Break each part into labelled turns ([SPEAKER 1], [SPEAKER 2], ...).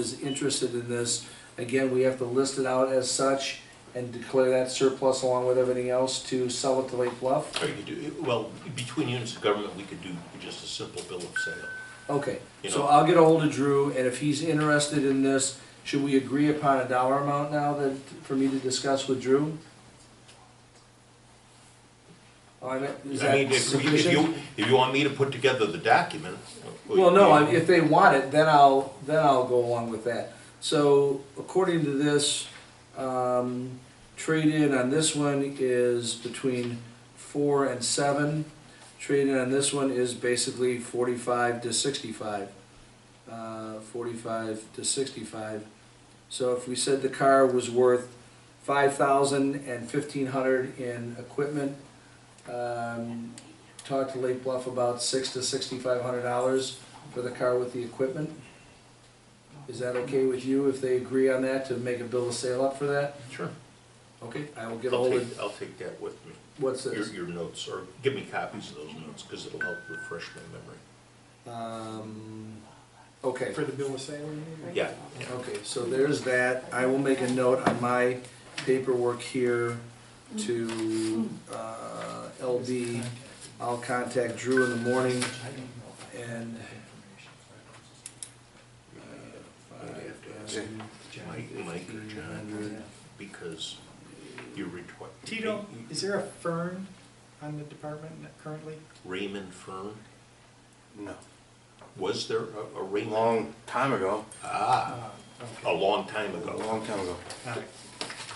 [SPEAKER 1] is interested in this, again, we have to list it out as such and declare that surplus along with everything else to sell it to Lake Bluff?
[SPEAKER 2] Or you could do, well, between units of government, we could do just a simple bill of sale.
[SPEAKER 1] Okay,
[SPEAKER 2] You
[SPEAKER 1] so uh,
[SPEAKER 2] know.
[SPEAKER 1] I'll get a hold of Drew, and if he's interested in this, should we agree upon a dollar amount now that, for me to discuss with Drew? I mean, is
[SPEAKER 2] I mean,
[SPEAKER 1] that
[SPEAKER 2] if we- if
[SPEAKER 1] sufficient?
[SPEAKER 2] you, if you want me to put together the document.
[SPEAKER 1] Well, no, I- if they want it, then I'll, then I'll go along with that. So according to this, um, trade-in on this one is between four and seven. Trade-in on this one is basically forty-five to sixty-five. Uh, forty-five to sixty-five. So if we said the car was worth five thousand and fifteen hundred in equipment, um, talk to Lake Bluff about six to sixty-five hundred dollars for the car with the equipment. Is that okay with you if they agree on that, to make a bill of sale up for that?
[SPEAKER 2] Sure.
[SPEAKER 1] Okay, I will get
[SPEAKER 2] I'll
[SPEAKER 1] ahold
[SPEAKER 2] take,
[SPEAKER 1] of,
[SPEAKER 2] I'll take that with me,
[SPEAKER 1] what's
[SPEAKER 2] your,
[SPEAKER 1] this?
[SPEAKER 2] your notes, or give me copies of those notes, because it'll help refresh my memory.
[SPEAKER 1] Um, okay,
[SPEAKER 3] For the bill of sale, you mean?
[SPEAKER 2] Yeah, yeah.
[SPEAKER 1] okay, so there's that. I will make a note on my paperwork here to, uh, LD. I'll contact Drew in the morning and.
[SPEAKER 2] I'd have to ask Mike, Mike or John, because you're required.
[SPEAKER 3] Tito, is there a fern on the department currently?
[SPEAKER 2] Raymond Fern,
[SPEAKER 4] No.
[SPEAKER 2] was there a- a
[SPEAKER 4] A
[SPEAKER 2] Raymond?
[SPEAKER 4] long time ago.
[SPEAKER 2] Ah,
[SPEAKER 3] Uh,
[SPEAKER 2] a long time
[SPEAKER 4] A
[SPEAKER 2] ago.
[SPEAKER 4] long time ago.
[SPEAKER 3] okay.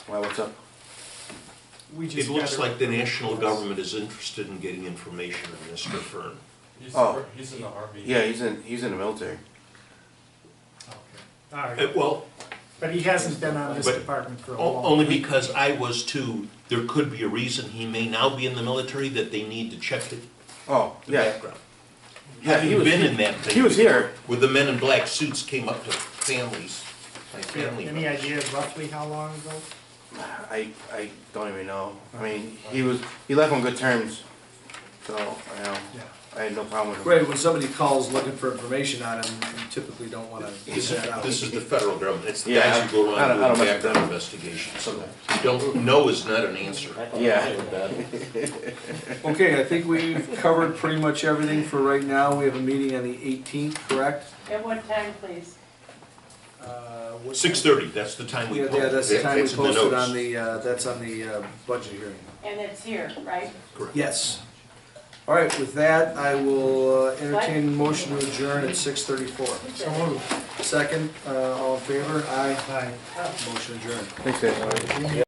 [SPEAKER 4] Why, what's up?
[SPEAKER 3] We just
[SPEAKER 2] It looks
[SPEAKER 3] got a-
[SPEAKER 2] like the national government is interested in getting information on Mr. Fern.
[SPEAKER 5] He's,
[SPEAKER 4] Oh.
[SPEAKER 5] he's in the Army.
[SPEAKER 4] Yeah, he's in, he's in the military.
[SPEAKER 3] Okay. All
[SPEAKER 2] Uh,
[SPEAKER 3] right,
[SPEAKER 2] Well,
[SPEAKER 3] but he hasn't been on this
[SPEAKER 2] But-
[SPEAKER 3] department for a
[SPEAKER 2] o-
[SPEAKER 3] long.
[SPEAKER 2] only because I was too, there could be a reason he may now be in the military that they need to check the
[SPEAKER 4] Oh,
[SPEAKER 2] the
[SPEAKER 4] yeah.
[SPEAKER 2] background.
[SPEAKER 4] Yeah, he
[SPEAKER 2] Having
[SPEAKER 4] was,
[SPEAKER 2] been in that
[SPEAKER 4] he was
[SPEAKER 2] thing,
[SPEAKER 4] here.
[SPEAKER 2] where the men in black suits came up to families, my family
[SPEAKER 3] Any
[SPEAKER 2] members.
[SPEAKER 3] idea roughly how long ago?
[SPEAKER 4] I, I don't even know. I mean, he was, he left on good terms. So, you know,
[SPEAKER 3] Yeah.
[SPEAKER 4] I had no problem with him.
[SPEAKER 1] Right, when somebody calls looking for information on him, you typically don't wanna give
[SPEAKER 2] This is,
[SPEAKER 1] that out.
[SPEAKER 2] this is the federal government, it's the
[SPEAKER 4] Yeah,
[SPEAKER 2] guys who go
[SPEAKER 4] I
[SPEAKER 2] around
[SPEAKER 4] don't- I don't
[SPEAKER 2] doing
[SPEAKER 4] mess with
[SPEAKER 2] background
[SPEAKER 4] them.
[SPEAKER 2] investigations. So you don't, know is not an answer.
[SPEAKER 4] Yeah.
[SPEAKER 1] Okay, I think we've covered pretty much everything for right now. We have a meeting on the eighteenth, correct?
[SPEAKER 6] At what time, please?
[SPEAKER 1] Uh, what-
[SPEAKER 2] Six thirty, that's the time we
[SPEAKER 1] Yeah,
[SPEAKER 2] posted.
[SPEAKER 1] yeah, that's the time we
[SPEAKER 2] It's in the
[SPEAKER 1] posted
[SPEAKER 2] notes.
[SPEAKER 1] on the, uh, that's on the uh, budget hearing.
[SPEAKER 6] And it's here, right?
[SPEAKER 2] Correct.
[SPEAKER 1] Yes. All right, with that, I will uh, entertain motion to adjourn at six thirty-four.
[SPEAKER 3] So moved.
[SPEAKER 1] Second, uh, all in favor? Aye.
[SPEAKER 3] Aye.
[SPEAKER 1] Motion adjourned.
[SPEAKER 4] Thanks, Dave.